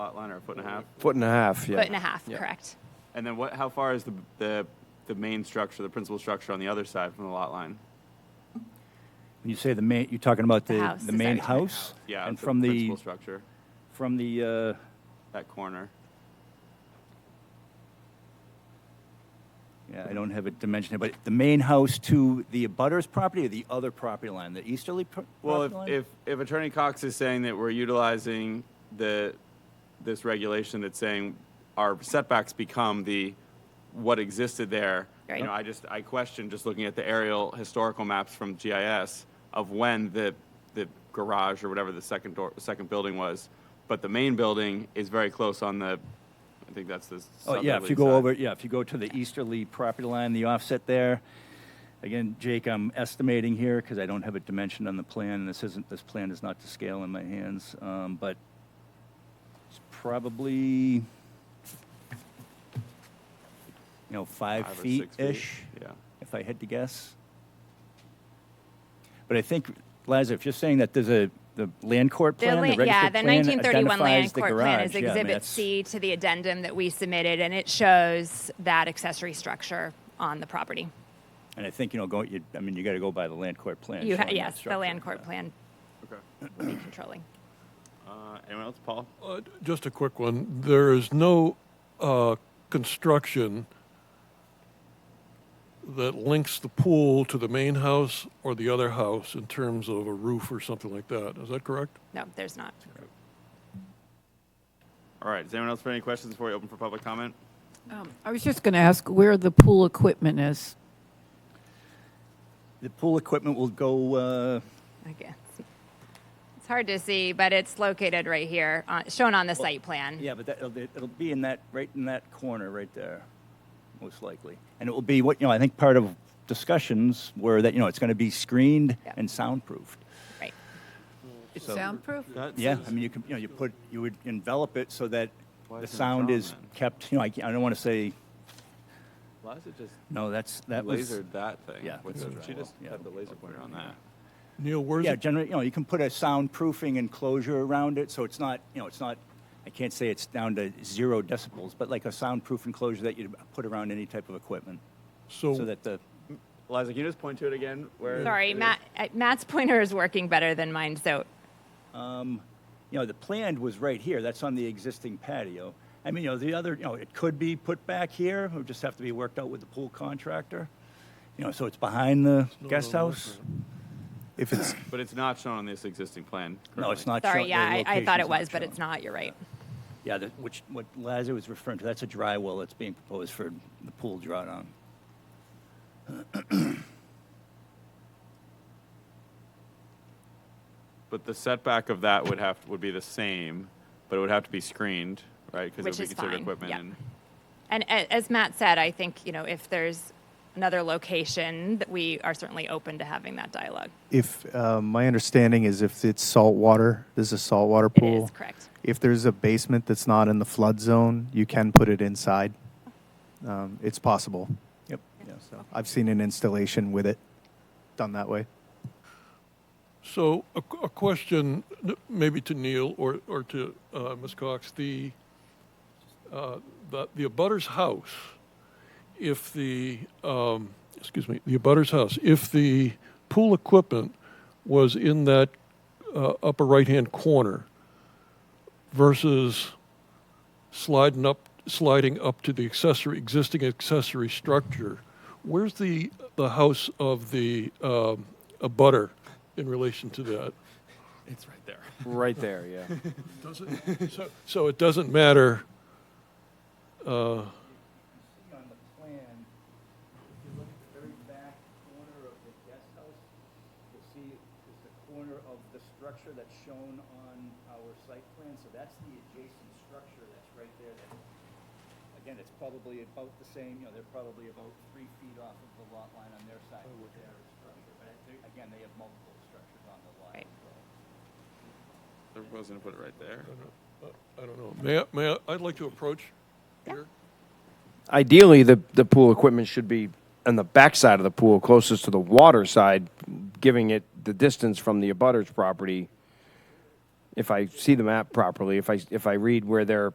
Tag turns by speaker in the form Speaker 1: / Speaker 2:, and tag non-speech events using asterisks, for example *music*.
Speaker 1: lot line or a foot and a half?
Speaker 2: Foot and a half, yeah.
Speaker 3: Foot and a half,
Speaker 2: Yeah.
Speaker 3: correct.
Speaker 1: And then what, how far is the, the, the main structure, the principal structure on the other side from the lot line?
Speaker 4: When you say the main, you're talking about
Speaker 3: The
Speaker 4: the,
Speaker 3: house,
Speaker 4: the
Speaker 3: the
Speaker 4: main
Speaker 3: side.
Speaker 4: house?
Speaker 1: Yeah.
Speaker 4: And
Speaker 1: the
Speaker 4: from the,
Speaker 1: Principal structure,
Speaker 4: from the, uh,
Speaker 1: that corner.
Speaker 4: yeah, I don't have a dimension here, but the main house to the abutters property or the other property line, the easterly pro-
Speaker 1: Well, if,
Speaker 4: property line?
Speaker 1: if, if Attorney Cox is saying that we're utilizing the, this regulation that's saying our setbacks become the, what existed there. You
Speaker 3: Right.
Speaker 1: know, I just, I question, just looking at the aerial historical maps from GIS of when the, the garage or whatever the second door, second building was. But the main building is very close on the, I think that's the
Speaker 4: Oh,
Speaker 1: southerly
Speaker 4: yeah, if you go
Speaker 1: side.
Speaker 4: over, yeah, if you go to the easterly property line, the offset there. Again, Jake, I'm estimating here because I don't have a dimension on the plan, and this isn't, this plan is not to scale in my hands, um, but it's probably, you know, five
Speaker 1: Five or six feet,
Speaker 4: feet-ish,
Speaker 1: Yeah.
Speaker 4: if I had to guess. But I think, Liza, if you're saying that there's a, the land court
Speaker 3: The
Speaker 4: plan, the
Speaker 3: la-
Speaker 4: registered
Speaker 3: yeah, the
Speaker 4: plan
Speaker 3: 1931
Speaker 4: identifies
Speaker 3: land
Speaker 4: the
Speaker 3: court plan
Speaker 4: garage.
Speaker 3: is
Speaker 4: Yeah, I mean,
Speaker 3: Exhibit
Speaker 4: that's-
Speaker 3: C to the addendum that we submitted, and it shows that accessory structure on the property.
Speaker 4: And I think, you know, go, you, I mean, you got to go by the land court plan.
Speaker 3: You ha-
Speaker 4: showing that
Speaker 3: yes, the
Speaker 4: structure.
Speaker 3: land court plan
Speaker 1: Okay.
Speaker 3: will be controlling.
Speaker 1: Uh, anyone else? Paul?
Speaker 5: Uh, d- Just a quick one. There is no uh, construction that links the pool to the main house or the other house in terms of a roof or something like that. Is that correct?
Speaker 3: No, there's not.
Speaker 1: All right. Does anyone else have any questions before we open for public comment?
Speaker 6: Um, I was just going to ask where the pool equipment is.
Speaker 4: The pool equipment will go, uh,
Speaker 3: I guess. It's hard to see, but it's located right here, uh, shown on the site plan.
Speaker 4: yeah, but that, it'll, be- it'll be in that, right in that corner right there, most likely. And it will be what, you know, I think part of discussions were that, you know, it's going to be screened
Speaker 3: Yeah.
Speaker 4: and soundproofed.
Speaker 3: Right.
Speaker 6: It's
Speaker 4: So-
Speaker 6: soundproof?
Speaker 4: Yeah, I mean, you can, you know, you put, you would envelop it so that
Speaker 1: Why
Speaker 4: the
Speaker 1: isn't it
Speaker 4: sound
Speaker 1: drawn
Speaker 4: is
Speaker 1: then?
Speaker 4: kept, you know, I, can't- I don't want to say,
Speaker 1: Why is it just
Speaker 4: no, that's, that was.
Speaker 1: lasered that thing?
Speaker 4: yeah,
Speaker 1: With
Speaker 4: that's
Speaker 1: the-
Speaker 4: right.
Speaker 1: She just
Speaker 4: Yeah.
Speaker 1: had the laser pointer on that.
Speaker 5: Neil, where's
Speaker 4: Yeah,
Speaker 5: it?
Speaker 4: generally, you know, you can put a soundproofing enclosure around it, so it's not, you know, it's not, I can't say it's down to zero decibels, but like a soundproof enclosure that you'd put around any type of equipment, so
Speaker 5: So
Speaker 4: that the,
Speaker 1: Liza, can you just point to it again? Where?
Speaker 3: Sorry,
Speaker 1: it is?
Speaker 3: Matt, uh, Matt's pointer is working better than mine, so
Speaker 4: you know, the planned was right here, that's on the existing patio. I mean, you know, the other, you know, it could be put back here, it would just have to be worked out with the pool contractor. You know, so it's behind the guest house? If it's,
Speaker 1: But it's not shown on this existing plan.
Speaker 4: no, it's
Speaker 1: currently.
Speaker 4: not
Speaker 3: sorry,
Speaker 4: shown- the
Speaker 3: yeah, I, I thought it
Speaker 4: location's
Speaker 3: was, but
Speaker 4: shown.
Speaker 3: it's not, you're right.
Speaker 4: Yeah, the- which, what Lazar was referring to, that's a dry well that's being proposed for the pool drawdown.
Speaker 1: But the setback of that would have, would be the same, but it would have to be screened, right? Because
Speaker 3: Which
Speaker 1: it would
Speaker 3: is
Speaker 1: be considered
Speaker 3: fine,
Speaker 1: equipment.
Speaker 3: yeah.
Speaker 1: and-
Speaker 3: And a- as Matt said, I think, you know, if there's another location, that we are certainly open to having that dialogue.
Speaker 7: If um, my understanding is, if it's salt water, there's a saltwater
Speaker 3: It
Speaker 7: pool.
Speaker 3: is correct.
Speaker 7: If there's a basement that's not in the flood zone, you can put it inside. Um, it's possible.
Speaker 4: Yep, yeah, so.
Speaker 7: I've seen an installation with it done that way.
Speaker 5: So a, qu- a question, n- maybe to Neil or, or to uh, Ms. Cox, the, uh, the, the abutter's house, if the, um, excuse me, the abutter's house, if the pool equipment was in that uh, upper right-hand corner versus sliding up, sliding up to the accessory, existing accessory structure, where's the, the house of the um, abutter in relation to that?
Speaker 1: It's right there.
Speaker 2: Right there, yeah.
Speaker 5: Does it? so, so it doesn't matter.
Speaker 4: see on the plan, if you look at the very back corner of the guest house, you'll see is the corner of the structure that's shown on our site plan, so that's the adjacent structure that's right there. That Again, it's probably about the same, you know, they're probably about three feet off of the lot line on their side with their structure, but I think- again, they have multiple structures on the lot
Speaker 3: Right.
Speaker 4: as well.
Speaker 1: They're proposing to put it right there.
Speaker 5: I don't know. May I, may I, I'd like to approach here.
Speaker 2: *laughs* Ideally, the, the pool equipment should be on the backside of the pool, closest to the water side, giving it the distance from the abutter's property if I see the map properly, if I, if I read where they're